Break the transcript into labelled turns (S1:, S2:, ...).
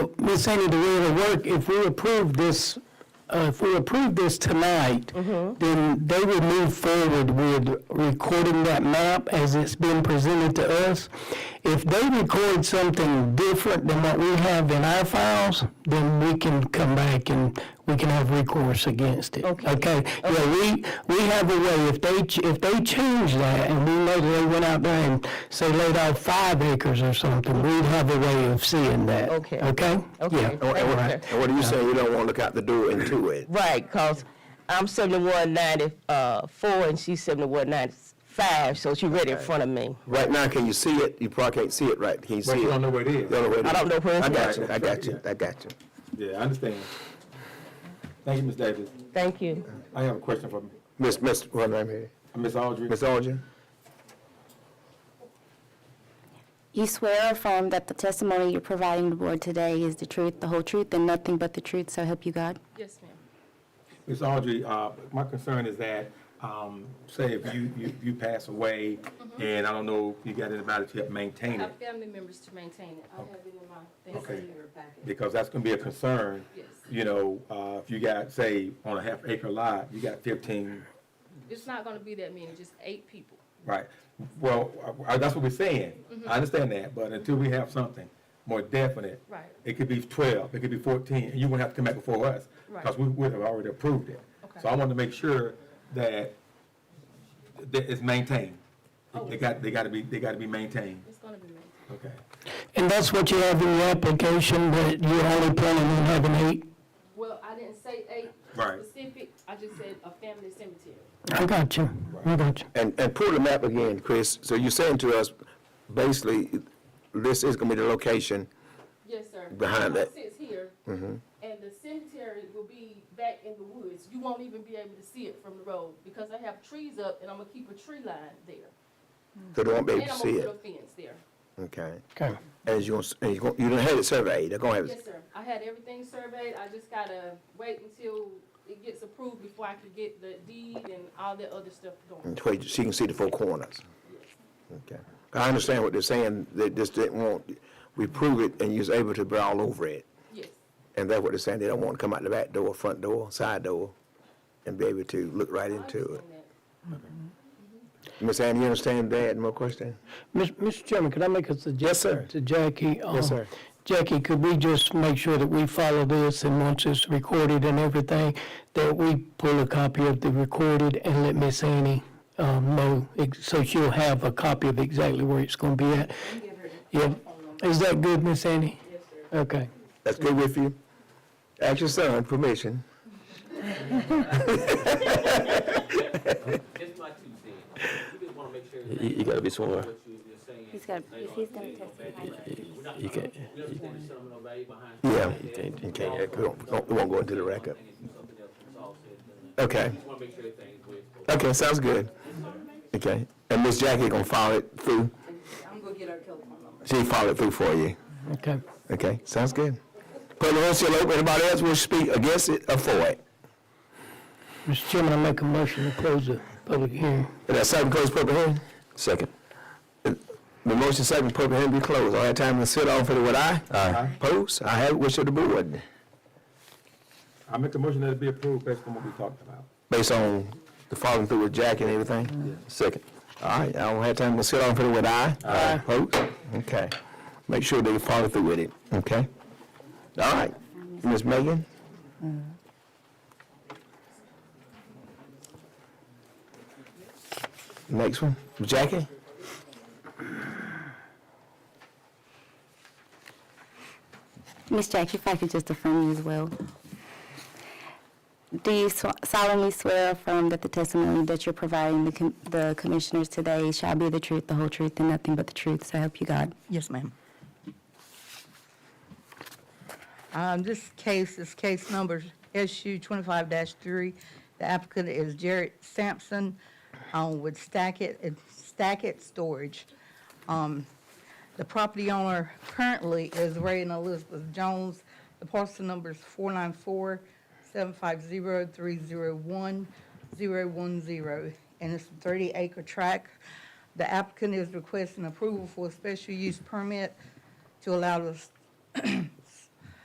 S1: Ms. Sandy, the way it'll work, if we approve this, uh, if we approve this tonight, then they will move forward with recording that map as it's been presented to us. If they record something different than what we have in our files, then we can come back and we can have recourse against it.
S2: Okay.
S1: Okay, yeah, we, we have a way, if they, ch- if they change that, and we know that they went out there and say laid off five acres or something, we'd have a way of seeing that.
S2: Okay.
S1: Okay?
S2: Okay.
S1: Yeah.
S3: And what-
S2: Right.
S3: and what are you saying, you don't want to look out the door and do it?
S2: Right, because I'm 7194 and she's 7195, so she's right in front of me.
S3: Right now, can you see it? You probably can't see it right, can you see it?
S4: But you don't know where it
S3: You
S4: is.
S3: don't know where it
S2: I don't
S3: is.
S2: know where it's
S3: I got
S2: at.
S3: you, I got you, I got you.
S4: Yeah, I understand. Thank you, Ms. Davis.
S2: Thank you.
S4: I have a question for
S3: Miss, Miss, what name is it?
S4: Ms. Audrey.
S3: Miss Alger?
S5: You swear or affirm that the testimony you're providing the board today is the truth, the whole truth, and nothing but the truth, so help you God?
S6: Yes, ma'am.
S4: Ms. Audrey, uh, my concern is that, um, say if you, you, you pass away, and I don't know if you got anybody to help maintain
S6: I
S4: it,
S6: have family members to maintain it. I have it in my
S4: Okay.
S6: Thanksgiving packet.
S4: because that's gonna be a concern.
S6: Yes.
S4: You know, uh, if you got, say, on a half acre lot, you got fifteen,
S6: It's not gonna be that many, just eight people.
S4: right? Well, I, I- that's what we're saying.
S6: Mm-hmm.
S4: I understand that, but until we have something more definite.
S6: Right.
S4: It could be twelve, it could be fourteen, and you wouldn't have to come back before us.
S6: Right.
S4: Because we would have already approved it. So
S6: Okay.
S4: I want to make sure that, that it's maintained.
S6: Oh.
S4: They got, they gotta be, they gotta be maintained,
S6: It's gonna be many.
S4: okay?
S1: And that's what you have in your application, that you're only planning on having eight?
S6: Well, I didn't say eight
S4: Right.
S6: specific, I just said a family cemetery.
S1: I got you, I got you.
S3: And, and pull the map again, Chris. So you're saying to us, basically, this is gonna be the location,
S6: Yes, sir.
S3: Behind
S6: The
S3: that. Mm-hmm.
S6: house Sits here, and the cemetery will be back in the woods. You won't even be able to see it from the road, because I have trees up, and I'm gonna keep a tree line there.
S3: so they won't be able
S6: And
S3: to
S6: I'm
S3: see
S6: gonna put a
S3: it.
S6: fence there.
S3: Okay.
S1: Okay.
S3: And you're, and you're, you done had it surveyed, they're gonna have
S6: Yes,
S3: it.
S6: sir. I had everything surveyed. I just gotta wait until it gets approved before I can get the deed and all that other stuff going.
S3: And where you- she can see the four corners. Okay. I understand what they're saying, they just didn't want, we prove it and you was able to be all over it.
S6: Yes,
S3: And that's what they're saying, they don't want to come out the back door, front door, side door, and be able to look right
S6: I
S3: into
S6: understand
S3: it.
S6: that.
S3: Ms. Ann, you understand that, no question?
S1: Mis- Mr. Chairman, could I make a suggestion
S3: sir.
S1: to Jackie? Um,
S3: sir.
S1: Jackie, could we just make sure that we follow this, and once it's recorded and everything, that we pull a copy of the recorded and let Miss Annie um, know, ex- so she'll have a copy of exactly where it's going to be at? Yeah, is that good, Miss Annie? Yes, sir. Okay.
S3: That's good with you? Ask your son permission.
S7: Just my two cents. We just want to make sure that
S8: You, you gotta be sworn.
S7: what you- you're saying.
S5: He's got, he's gonna testify.
S7: We're not
S8: You
S7: trying
S8: can't.
S7: to, we understand there's some no value behind.
S3: Yeah.
S7: something like that.
S8: You
S3: Okay, yeah, we won't, we won't- we won't go into the record.
S7: And it's something else from Saul said, then, uh,
S3: Okay,
S7: we just want to make sure everything's where it's supposed to be.
S3: okay, sounds good. Okay, and Miss Jackie gonna follow it through? I'm gonna get her telephone number. She follow it through for you,
S1: Okay.
S3: okay, sounds good. Put the horn seal open, anybody else wish to speak against it or for it?
S1: Mr. Chairman, I make a motion to close the public hearing.
S3: Is that second close public hearing? Second. The motion second public hearing be closed. All that time to sit on for the what I? Aye. Pose, I have wish of the board,
S4: I make a motion that it be approved based on what we talked about.
S3: based on the following through with Jack and everything? Second. All right, I don't have time to sit on for the what I? Aye. Pose, okay. Make sure they follow through with it, okay? All right, Ms. Megan? Next one, Jackie?
S5: Ms. Jackie, if I could just affirm you as well. Do you sw- solemnly swear or affirm that the testimony that you're providing the com- the commissioners today shall be the truth, the whole truth, and nothing but the truth, so help you God?
S9: Yes, ma'am. Um, This case is case number SU 25-3. The applicant is Jared Sampson um, with Stackit, uh, Stackit Storage. Um, The property owner currently is Ray and Elizabeth Jones. The parcel number is 494-750-301-010, and it's a 30-acre tract. The applicant is requesting approval for a special use permit to allow the s-